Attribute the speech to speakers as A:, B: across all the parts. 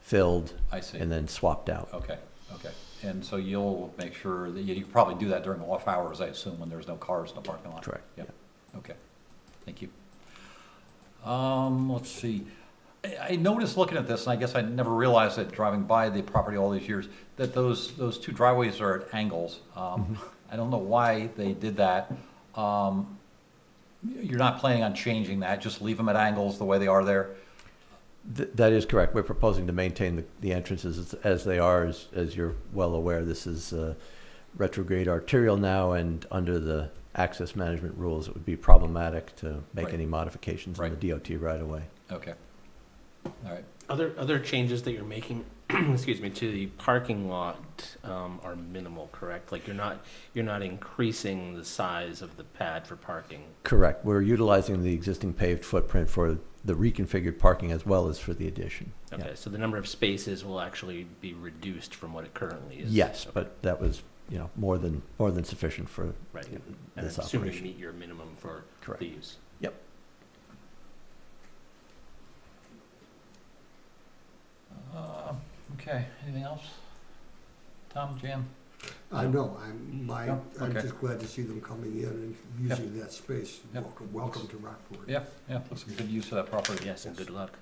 A: filled,
B: I see. Oh.
A: and then swapped out.
B: Okay, okay. And so you'll make sure that, you you can probably do that during off hours, I assume, when there's no cars in the parking lot?
A: Correct,
B: Yep, okay. Thank you. Um, let's see. I, I noticed looking at this, and I guess I never realized it driving by the property all these years, that those, those two driveways are at angles. Um, I don't know why they did that. Um, you're not planning on changing that, just leave them at angles the way they are there?
A: Th- That is correct. We're proposing to maintain the- the entrances as- as they are, as as you're well aware. This is uh, retrograde arterial now, and under the access management rules, it would be problematic to make
B: Right.
A: any modifications in the
B: Right.
A: DOT right away.
B: Okay. All right,
C: Other, other changes that you're making, excuse me, to the parking lot um, are minimal, correct? Like you're not, you're not increasing the size of the pad for parking.
A: Correct. We're utilizing the existing paved footprint for the reconfigured parking as well as for the addition. Yeah.
C: Okay, so the number of spaces will actually be reduced from what it currently is.
A: Yes,
C: Okay,
A: but that was, you know, more than, more than sufficient for,
C: Right,
A: yeah,
C: and
A: this
C: assuming you
A: operation.
C: meet your minimum for
A: Correct.
C: the use.
B: Uh, Okay, anything else? Tom, Jan?
D: I know, I'm, my,
B: Yeah,
D: I'm
B: Mm. okay.
D: just glad to see them coming in and using that space.
B: Yep.
D: Welcome, welcome to Rockport.
B: Yeah, yeah, that's a good use of that property.
C: Yes, and good luck.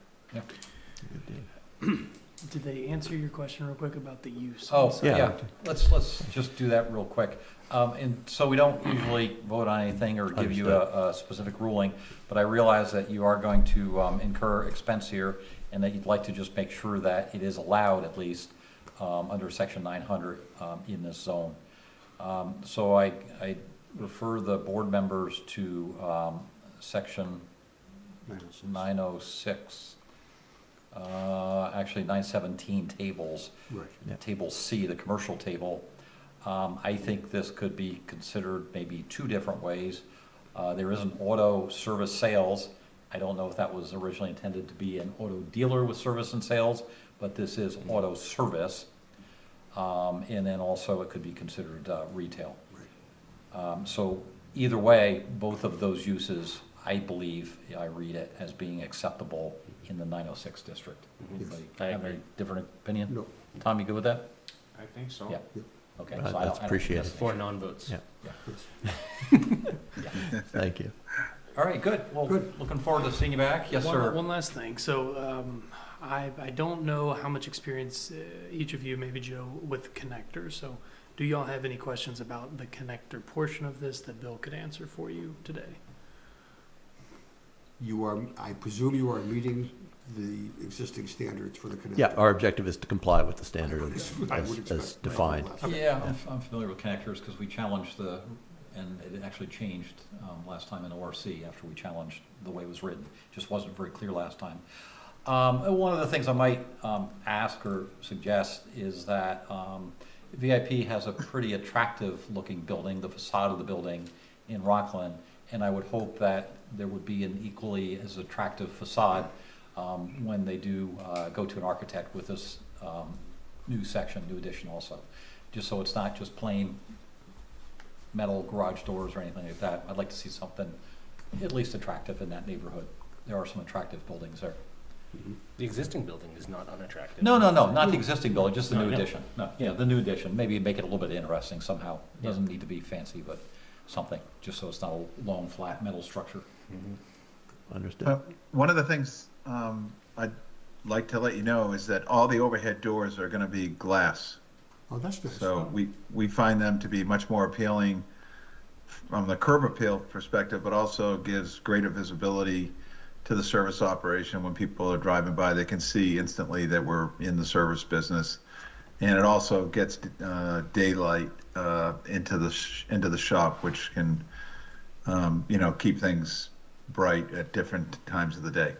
E: Did they answer your question real quick about the use?
B: Oh,
E: So-
A: yeah,
B: yeah, let's, let's just do that real quick. Um, and so we don't usually vote on anything or give you a, a specific ruling, but I realize that you are going to, um, incur expense here and that you'd like to just make sure that it is allowed at least, um, under section nine hundred, um, in this zone. Um, so I, I refer the board members to, um, section
D: Nice.
B: 906, uh, actually 917 tables,
D: Right.
A: Yeah.
B: Table C, the commercial table. Um, I think this could be considered maybe two different ways. Uh, There is an auto service sales. I don't know if that was originally intended to be an auto dealer with service and sales, but this is auto service. Um, And then also it could be considered uh, retail.
D: Right.
B: Um, So either way, both of those uses, I believe, I read it as being acceptable in the 906 district. Anybody
C: I
B: Have a
C: agree.
B: different opinion?
D: No,
B: Tom, you good with that?
F: I think so.
B: Yeah. Okay. so I
A: Uh,
B: don't-
A: that's
B: I don't-
A: appreciated.
B: yes.
C: Four non-votes.
A: Yeah.
D: yes.
A: Thank you.
B: All right, good. Well,
D: Good.
B: looking forward to seeing you back. Yes,
E: one,
B: sir.
E: One last thing. So um, I, I don't know how much experience uh, each of you, maybe Joe, with connectors. So do y'all have any questions about the connector portion of this that Bill could answer for you today?
D: You are, I presume you are meeting the existing standards for the connector.
A: Yeah, our objective is to comply with the standard as-
D: I would
A: as,
D: expect.
A: as defined.
D: Okay.
B: Yeah, I'm- I'm familiar with connectors because we challenged the, and it actually changed um, last time in ORC after we challenged the way it was written. Just wasn't very clear last time. Um, and One of the things I might um, ask or suggest is that um, VIP has a pretty attractive-looking building, the facade of the building in Rockland, and I would hope that there would be an equally as attractive facade um, when they do uh, go to an architect with this um, new section, new addition also, just so it's not just plain metal garage doors or anything like that. I'd like to see something at least attractive in that neighborhood. There are some attractive buildings there.
C: The existing building is not unattractive.
B: No, no, no, not the existing building, just the
C: No,
B: new
C: no.
B: addition. No, yeah, the new addition, maybe make it a little bit interesting somehow.
C: Yeah.
B: Doesn't need to be fancy, but something, just so it's not a long, flat metal structure.
A: Understood.
G: Uh, One of the things um, I'd like to let you know is that all the overhead doors are going to be glass.
D: Oh, that's nice.
G: So we, we find them to be much more appealing from the curb appeal perspective, but also gives greater visibility to the service operation. When people are driving by, they can see instantly that we're in the service business. And it also gets uh, daylight uh, into the sh- into the shop, which can um, you know keep things bright at different times of the day.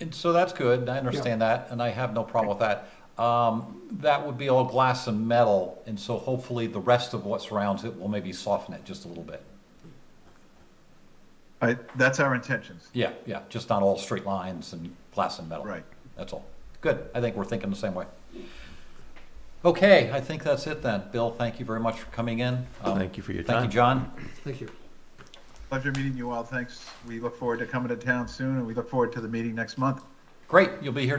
B: And so that's good, I understand that, and I have no problem with that. Um, that would be all glass and metal, and so hopefully the rest of what surrounds it will maybe soften it just a little bit.
G: I, that's our intentions.
B: Yeah, yeah, just not all straight lines and glass and metal.
G: Right.
B: That's all. Good, I think we're thinking the same way. Okay, I think that's it then. Bill, thank you very much for coming in. Um,
A: Thank you for your
B: Thank you,
A: time.
B: John.
D: Thank you.
G: Pleasure meeting you all. Thanks. We look forward to coming to town soon and we look forward to the meeting next month.
B: Great, you'll be here